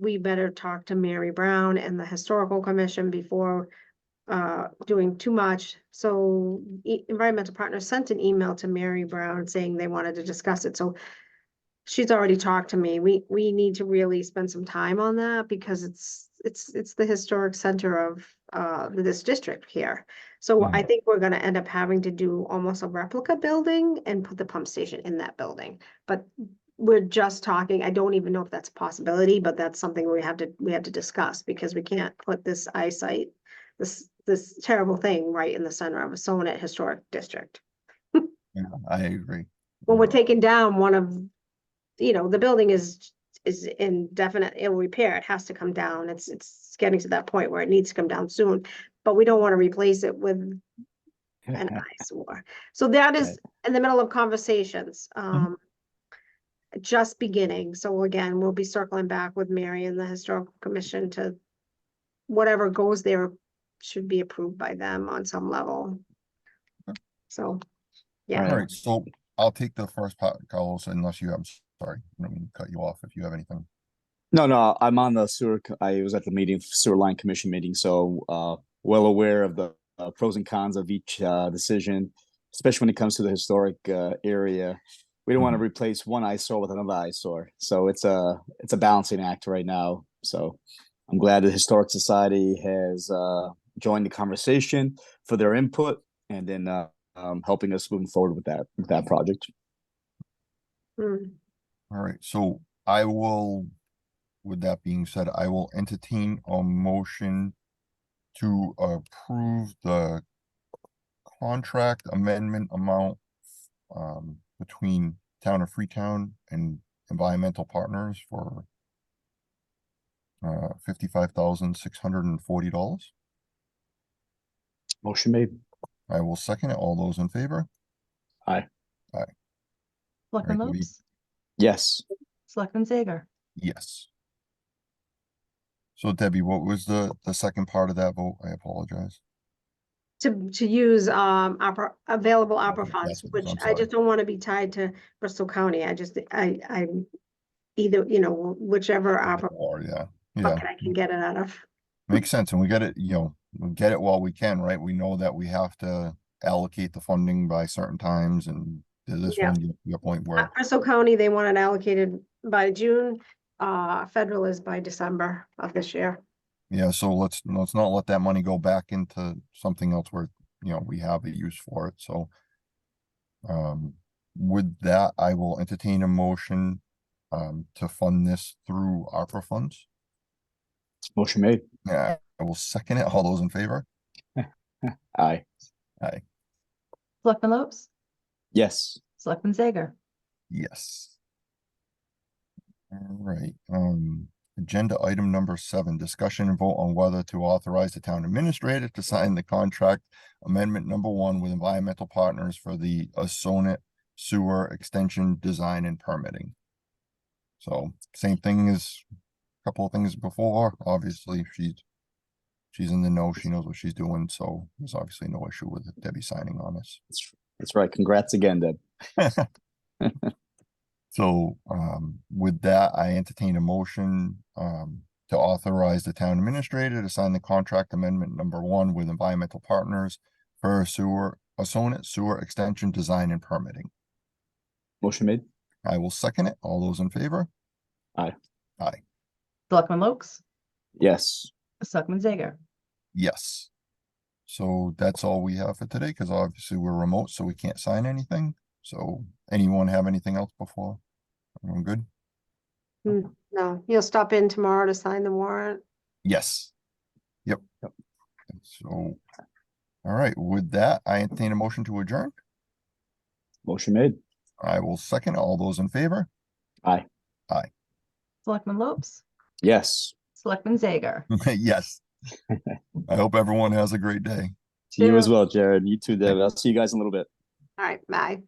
we better talk to Mary Brown and the historical commission before uh, doing too much. So E- environmental partners sent an email to Mary Brown saying they wanted to discuss it, so she's already talked to me. We, we need to really spend some time on that because it's, it's, it's the historic center of uh, this district here. So I think we're gonna end up having to do almost a replica building and put the pump station in that building. But we're just talking, I don't even know if that's a possibility, but that's something we have to, we have to discuss because we can't put this eyesight, this, this terrible thing right in the center of a Sonnet Historic District. Yeah, I agree. When we're taking down one of, you know, the building is, is in definite ill repair, it has to come down, it's, it's getting to that point where it needs to come down soon. But we don't wanna replace it with an eyesore. So that is in the middle of conversations, Mm-hmm. um. Just beginning, so again, we'll be circling back with Mary and the historical commission to. Whatever goes there should be approved by them on some level. So, yeah. All right, so I'll take the first part, Carlos, unless you, I'm s- sorry, I don't mean to cut you off if you have anything. No, no, I'm on the sewer, co- I was at the meeting, sewer line commission meeting, so, uh, well aware of the uh, pros and cons of each, uh, decision. Especially when it comes to the historic, uh, area. We don't want to replace one eyesore with another eyesore, so it's a, it's a balancing act right now, so. I'm glad the Historic Society has, uh, joined the conversation for their input and then, uh, um, helping us moving forward with that, with that project. mm, All right, so I will, with that being said, I will entertain a motion to approve the contract amendment amount um, between Town of Freetown and Environmental Partners for uh, fifty-five thousand six hundred and forty dollars. Motion made. I will second it. All those in favor? Selectman Right, we- Lopes, Yes, Selectman Zager, Yes. So Debbie, what was the, the second part of that vote? I apologize. To, to use, um, opera, available opera Okay, funds, that's- which I'm I sorry. just don't wanna be tied to Bristol County, I just, I, I. Either, you know, whichever opera Or, yeah, yeah, bucket I can get it out of, makes sense. And we get it, you know, we get it while we can, right? We know that we have to allocate the funding by certain times and to this Yeah. one, you- your point Uh, where, Bristol County, they want it allocated by June, uh, federal is by December of this year. yeah, so let's, let's not let that money go back into something else where, you know, we have a use for it, so. Um, with that, I will entertain a motion um to fund this through ARPA funds. motion made. Yeah, I will second it. All those in favor? Aye. Selectman Lopes, Yes. Selectman Zager, Yes. All right, um, agenda item number seven, discussion and vote on whether to authorize the town administrator to sign the contract amendment number one with environmental partners for the Assonet sewer extension design and permitting. So same thing as a couple of things before, obviously she's she's in the know, she knows what she's doing, so there's obviously no issue with Debbie signing on this. That's, that's right. Congrats again, Deb. So, um, with that, I entertain a motion, um, to authorize the town administrator to sign the contract amendment number one with environmental partners for sewer, a sonnet sewer extension design and permitting. Motion made. I will second it. All those in favor? Selectman Lopes, Yes. Selectman Zager, Yes. So that's all we have for today, because obviously we're remote, so we can't sign anything. So anyone have anything else before? Everyone good? No, you'll stop in tomorrow to sign the warrant. Yes. Yep. Yep. So, all right, with that, I entertain a motion to adjourn. Motion made. I will second all those in favor. Selectman Lopes, Yes. Selectman Zager. Yes. I hope everyone has a great day. To you as Yeah. well, Jared. You too, Deb. I'll see you guys in a little bit. All right, bye.